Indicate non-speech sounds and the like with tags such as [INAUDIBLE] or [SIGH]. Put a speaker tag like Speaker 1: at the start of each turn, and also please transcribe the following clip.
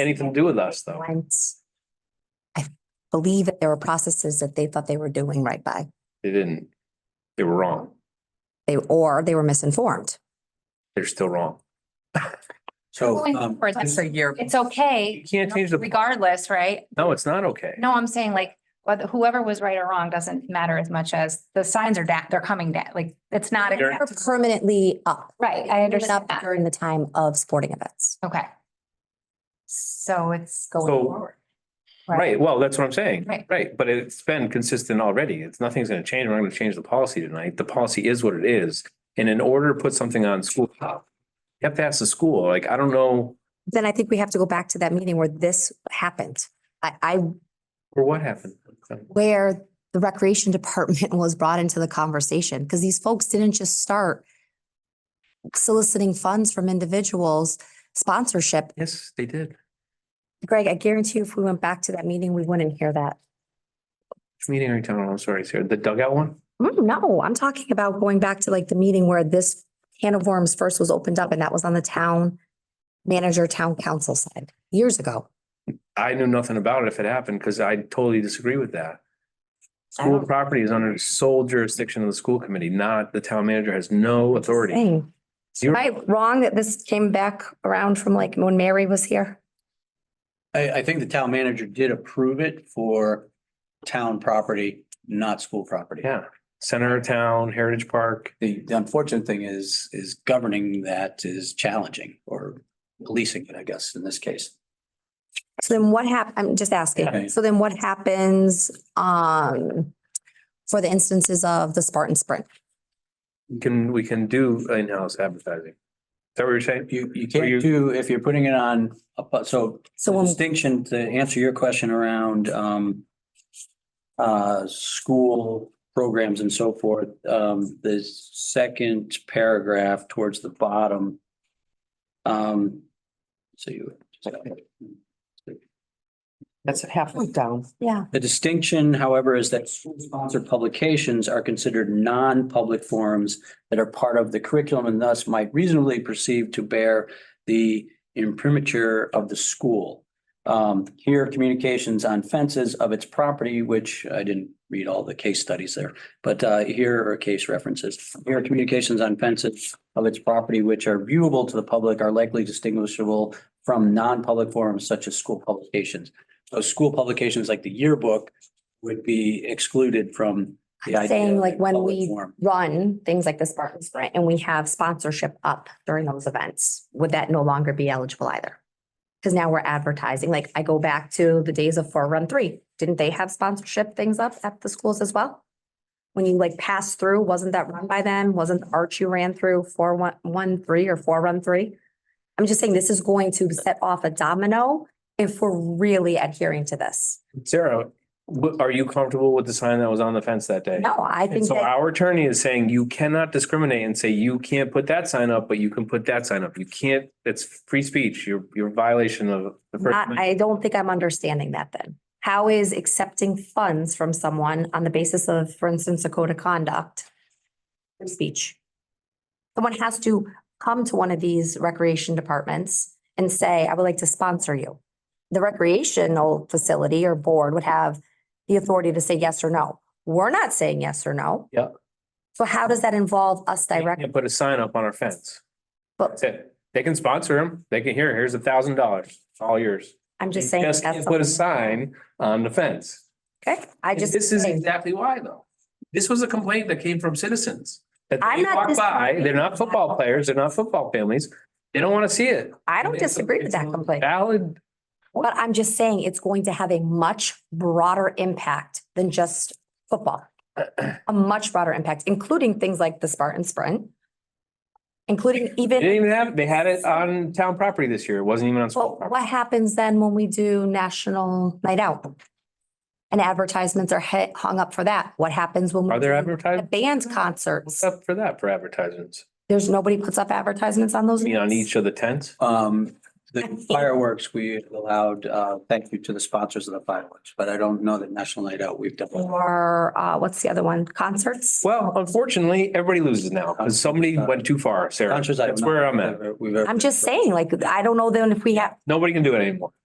Speaker 1: anything to do with us, though.
Speaker 2: Once. I believe that there were processes that they thought they were doing right by.
Speaker 1: They didn't. They were wrong.
Speaker 2: They, or they were misinformed.
Speaker 1: They're still wrong.
Speaker 3: So,
Speaker 4: Going
Speaker 3: um,
Speaker 4: forward, that's-
Speaker 3: this-
Speaker 4: It's okay
Speaker 1: You can't change the,
Speaker 4: regardless, right?
Speaker 1: no, it's not okay.
Speaker 4: No, I'm saying like, whether whoever was right or wrong doesn't matter as much as the signs are down, they're coming down, like, it's not.
Speaker 1: They're-
Speaker 2: Or permanently up.
Speaker 4: Right, I
Speaker 2: They went
Speaker 4: understand
Speaker 2: up
Speaker 4: that.
Speaker 2: During the time of sporting events.
Speaker 4: Okay. So it's going
Speaker 1: So-
Speaker 4: forward.
Speaker 1: Right, well, that's what I'm saying.
Speaker 4: Right.
Speaker 1: Right, but it's been consistent already. It's, nothing's gonna change. We're not gonna change the policy tonight. The policy is what it is. And in order to put something on school top, you have to ask the school, like, I don't know
Speaker 2: Then I think we have to go back to that meeting where this happened. I, I,
Speaker 1: or what happened.
Speaker 2: where the recreation [LAUGHS] department was brought into the conversation, because these folks didn't just start soliciting funds from individuals, sponsorship.
Speaker 1: Yes, they did,
Speaker 2: Greg, I guarantee you, if we went back to that meeting, we wouldn't hear that.
Speaker 1: which meeting are you talking about? I'm sorry, Sarah, the dugout one?
Speaker 2: Mm, No, I'm talking about going back to like the meeting where this can of worms first was opened up and that was on the town manager, town council side years ago.
Speaker 1: I knew nothing about it if it happened, because I totally disagree with that.
Speaker 2: I
Speaker 1: School
Speaker 2: don't-
Speaker 1: property is under sole jurisdiction of the school committee, not the town manager has no authority.
Speaker 2: Dang.
Speaker 1: Zero.
Speaker 2: Am I wrong that this came back around from like when Mary was here?
Speaker 3: I, I think the town manager did approve it for town property, not school property.
Speaker 1: Yeah, center of town, Heritage Park,
Speaker 3: The the unfortunate thing is, is governing that is challenging or policing it, I guess, in this case.
Speaker 2: So then what hap, I'm just
Speaker 3: Yeah.
Speaker 2: asking. So then what happens, um, for the instances of the Spartan Sprint?
Speaker 1: we can, we can do in-house advertising. Is that what you're saying?
Speaker 3: You, you
Speaker 1: Or you-
Speaker 3: can't do, if you're putting it on, a pu- so
Speaker 2: So
Speaker 3: The
Speaker 2: when,
Speaker 3: distinction to answer your question around um. Uh, school programs and so forth, um, the second paragraph towards the bottom. Um, so you.
Speaker 5: That's halfway down.
Speaker 2: yeah,
Speaker 3: The distinction, however, is that school-sponsored publications are considered non-public forums that are part of the curriculum and thus might reasonably perceive to bear the imprimatur of the school. Um, here, communications on fences of its property, which I didn't read all the case studies there, but uh, here are case references. Here, communications on fences of its property which are viewable to the public are likely distinguishable from non-public forums such as school publications. So school publications like the yearbook would be excluded from. the
Speaker 2: I'm
Speaker 3: idea
Speaker 2: saying
Speaker 3: of
Speaker 2: like when
Speaker 3: public
Speaker 2: we
Speaker 3: forum.
Speaker 2: run things like the Spartan Sprint and we have sponsorship up during those events, would that no longer be eligible either? Because now we're advertising, like I go back to the days of four run three, didn't they have sponsorship things up at the schools as well? When you like pass through, wasn't that run by them? Wasn't the arch you ran through four one, one, three or four run three? I'm just saying this is going to set off a domino if we're really adhering to this.
Speaker 1: Sarah, wh- are you comfortable with the sign that was on the fence that day?
Speaker 2: No, I
Speaker 1: And
Speaker 2: think
Speaker 1: so
Speaker 2: that,
Speaker 1: our attorney is saying you cannot discriminate and say you can't put that sign up, but you can put that sign up. You can't, it's free speech. You're, you're a violation of the first.
Speaker 2: not-
Speaker 1: Amendment.
Speaker 2: I don't think I'm understanding that then. How is accepting funds from someone on the basis of, for instance, a code of conduct? free Speech. Someone has to come to one of these recreation departments and say, I would like to sponsor you. The recreational facility or board would have the authority to say yes or no. We're not saying yes or no.
Speaker 1: Yeah.
Speaker 2: So how does that involve us
Speaker 1: They can't
Speaker 2: directly?
Speaker 1: Put a sign up on our fence.
Speaker 2: But
Speaker 1: That's it. They can sponsor them. They can, here, here's a thousand dollars, It's all yours.
Speaker 2: I'm just
Speaker 1: You
Speaker 2: saying.
Speaker 1: Just
Speaker 2: that's
Speaker 1: can't put a
Speaker 2: something-
Speaker 1: sign on the fence.
Speaker 2: Okay, I
Speaker 1: And
Speaker 2: just.
Speaker 1: This is
Speaker 2: saying.
Speaker 1: exactly why though. This was a complaint that came from citizens. That
Speaker 2: I'm
Speaker 1: they
Speaker 2: not
Speaker 1: walk by,
Speaker 2: disagreeing.
Speaker 1: they're not football players, they're not football families. They don't want to see it.
Speaker 2: I don't
Speaker 1: It's a-
Speaker 2: disagree with
Speaker 1: it's a
Speaker 2: that complaint,
Speaker 1: Valid
Speaker 2: but I'm just saying it's going to have a much broader impact than just
Speaker 1: [CLEARS THROAT]
Speaker 2: football. A much broader impact, including things like the Spartan Sprint. Including
Speaker 1: They
Speaker 2: even,
Speaker 1: didn't even have, they had it on town property this year. It wasn't even on school
Speaker 2: well,
Speaker 1: property.
Speaker 2: what happens then when we do National Night Out? And advertisements are hit, hung up for that. What happens when? we
Speaker 1: Are there
Speaker 2: do The [LAUGHS]
Speaker 1: advertisements?
Speaker 2: band
Speaker 1: What's
Speaker 2: concerts,
Speaker 1: up for that for advertisements?
Speaker 2: there's nobody puts up advertisements on those.
Speaker 1: I mean, on
Speaker 2: nights?
Speaker 1: each of the tents?
Speaker 3: Um, the fireworks, we allowed, uh, thank you to the sponsors of the fireworks, but I don't know that National Night Out, we've done.
Speaker 2: Or, uh, what's the other one? Concerts?
Speaker 1: Well, unfortunately, everybody loses now because somebody went too far, Sarah.
Speaker 3: Sponsors, I don't
Speaker 1: That's
Speaker 3: know
Speaker 1: where I'm
Speaker 3: if
Speaker 1: at.
Speaker 3: we've ever- we've ever-
Speaker 2: I'm just saying, like, I don't know then if we have,
Speaker 1: Nobody can do it anymore.